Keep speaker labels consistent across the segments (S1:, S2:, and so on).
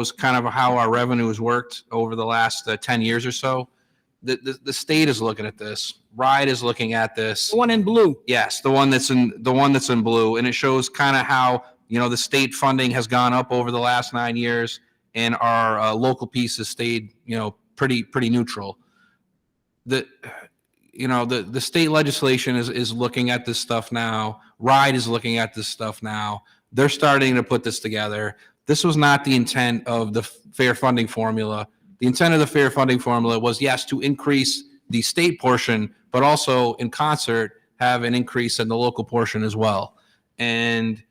S1: was kind of how our revenue has worked over the last uh, 10 years or so. The, the, the state is looking at this. RIDE is looking at this.
S2: The one in blue.
S1: Yes, the one that's in, the one that's in blue, and it shows kind of how, you know, the state funding has gone up over the last nine years, and our uh, local piece has stayed, you know, pretty, pretty neutral. The, you know, the, the state legislation is, is looking at this stuff now, RIDE is looking at this stuff now, they're starting to put this together. This was not the intent of the fair funding formula. The intent of the fair funding formula was, yes, to increase the state portion, but also in concert, have an increase in the local portion as well. And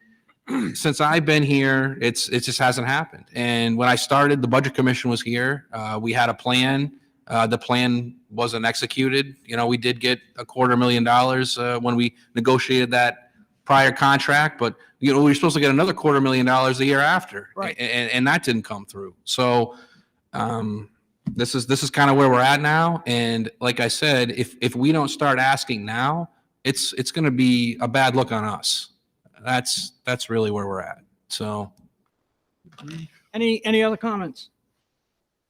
S1: since I've been here, it's it just hasn't happened. And when I started, the budget commission was here. Uh, we had a plan. Uh, the plan wasn't executed. You know, we did get a quarter million dollars uh, when we negotiated that prior contract, but you know we were supposed to get another quarter million dollars the year after,
S2: Right.
S1: A- And, and that didn't come through. So. Um, this is this is kind of where we're at now and like i said if if we don't start asking now it's it's going to be a bad look on us that's that's really where we're at so
S2: Any, any other comments?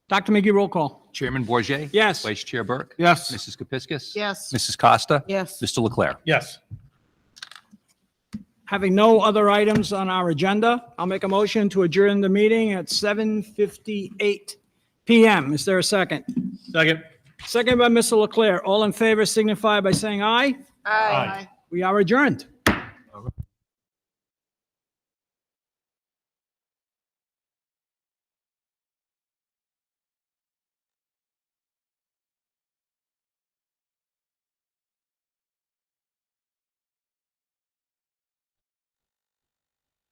S2: Dr. McGee, roll call.
S3: Chairman Bourget,
S2: Yes.
S3: Vice Chair Burke.
S4: Yes.
S3: Mrs. Kepiscus.
S5: Yes.
S3: Mrs. Costa.
S5: Yes.
S3: Mr. Leclerc.
S4: Yes.
S2: Having no other items on our agenda, I'll make a motion to adjourn the meeting at 7:58 PM. Is there a second?
S4: Second.
S2: Second by Mr. Leclerc. All in favor signify by saying aye.
S5: Aye.
S2: We are adjourned.